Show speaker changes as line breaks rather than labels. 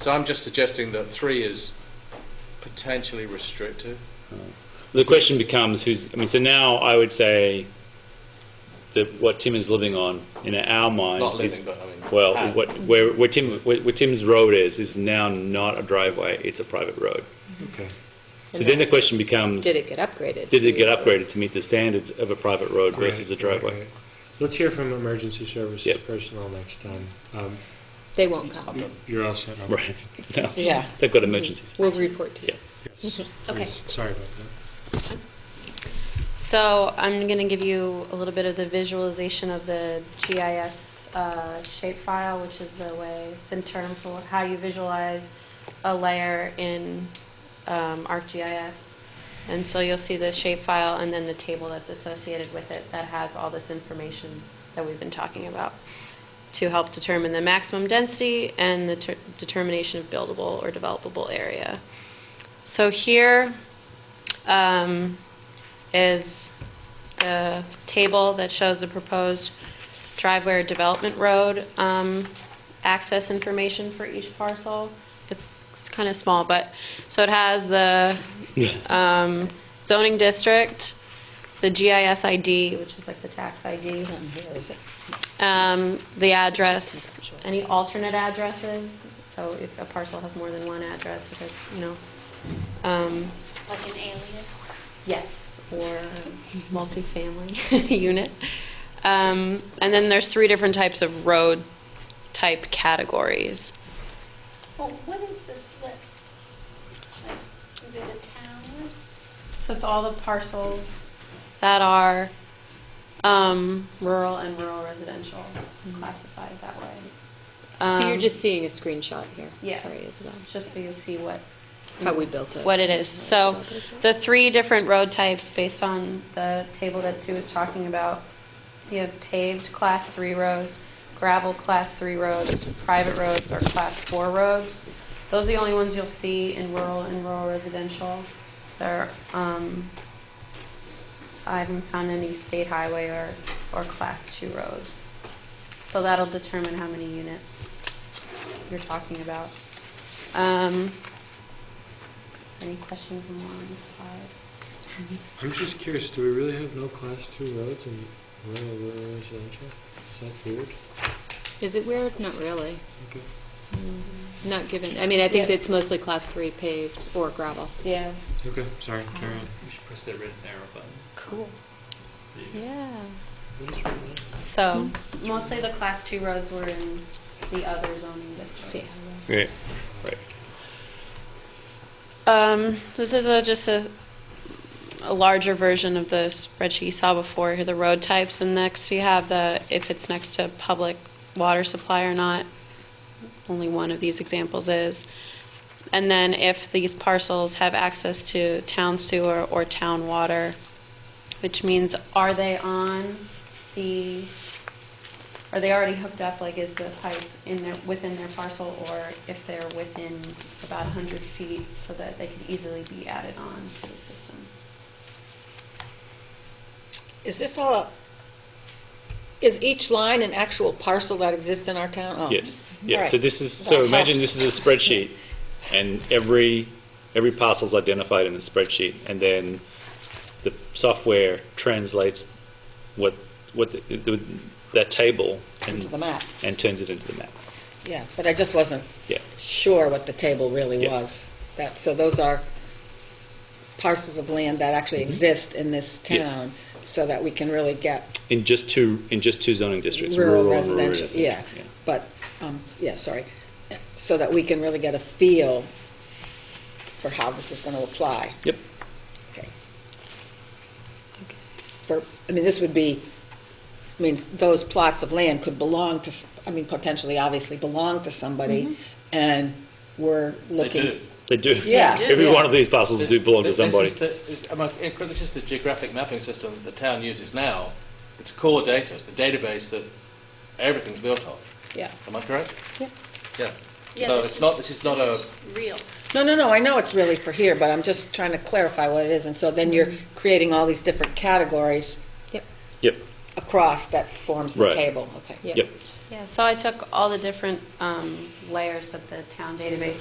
So I'm just suggesting that three is potentially restrictive.
The question becomes who's. I mean, so now I would say that what Tim is living on in our mind
Not living,
is
but I mean-
well,
Ah.
what where, where Tim where, where Tim's road is is now not a driveway; it's a private road.
Okay.
So then the question becomes:
Did it get upgraded?
did it
to-
get upgraded to meet the standards of a private road versus a
Right,
driveway?
right, right. Let's hear from emergency services
Yep.
personnel next time. Um,
They won't come.
you're all set. Robert.
Right. No.
Yeah.
They've got emergencies.
We'll report to you.
Yeah.
Yes.
Okay.
Yes. Sorry about that.
So I'm going to give you a little bit of the visualization of the GIS uh, shapefile, which is the way, the term for how you visualize a layer in um, ArcGIS. And so you'll see the shapefile and then the table that's associated with it that has all this information that we've been talking about to help determine the maximum density and the ter- determination of buildable or developable area. So here, um, is the table that shows the proposed driveway or development road um, access information for each parcel. It's, it's kind of small, but, so it has the um, zoning district, the GIS ID, which is like the tax ID,
It's not in here, is it?
um, the address,
Sure.
any alternate addresses, so if a parcel has more than one address, if it's, you know, um,
Like an alias?
Yes, or multifamily unit. Um, and then there's three different types of road type categories.
Well, what is this list? This- Is it a town list?
So it's all the parcels that are um, rural and rural residential classified that way.
So you're
Um,
just seeing a screenshot here.
Yeah.
Sorry, Isabel.
just so you see what
How we built it.
what it is. So the three different road types based on the table that Sue was talking about. You have paved class three roads, gravel class three roads, private roads or class four roads. Those are the only ones you'll see in rural and rural residential. There, um, I haven't found any state highway or, or class two roads. So that'll determine how many units you're talking about. Um, any questions more on this slide?
I'm just curious, do we really have no class two roads in rural rural residential? Is that weird?
Is it weird? Not really.
Okay.
Not given, I mean, I think
Yeah.
it's mostly class three paved or gravel.
Yeah.
Okay, sorry, carry on.
You should press that red arrow button.
Cool.
There you go.
Yeah.
What is wrong with that?
So mostly the class two roads were in the other zoning
See.
districts.
Right. Right.
Um, this is a, just a, a larger version of the spreadsheet you saw before, here the road types, and next you have the, if it's next to public water supply or not. Only one of these examples is. And then if these parcels have access to town sewer or town water, which means are they on the, are they already hooked up? Like, is the pipe in their, within their parcel, or if they're within about 100 feet so that they could easily be added on to the system?
Is this all, a- is each line an actual parcel that exists in our town? Oh.
Yes. Yeah.
All right.
So this is
That
so imagine
helps.
this is a spreadsheet, and every every parcel's identified in the spreadsheet, and then the software translates what what the, the, that table and
Into the map,
and turns it into the map.
yeah, but I just wasn't
Yeah.
sure what the table really
Yeah.
was. That, so those are parcels of land that actually exist in this
Mm-hmm. Yes.
town, so that we can really get
In just two in just two zoning districts,
rural
and
residential, yeah.
yeah.
But, um, yeah, sorry, so that we can really get a feel for how this is gonna apply.
Yep.
Okay. For, I mean, this would be, I mean, those plots of land could belong to, s- I mean, potentially, obviously, belong to somebody, and we're looking.
do.
They do.
Yeah. They do,
Every
yeah.
one of these parcels do belong to
This is
somebody.
the- is- am I incorrect? This is the geographic mapping system that the town uses now. It's core data, it's the database that everything's built off.
Yeah.
Am I correct?
Yeah.
Yeah.
Yeah,
So
this
it's not, this is not a,
This is real.
No, no, no, I know it's really for here, but I'm just trying to clarify what it is, and so then you're creating all these different categories
Yep.
Yep.
cross that forms the
Right.
table, okay.
Yeah.
Yep.
Yeah, so I took all the different um, layers that the town database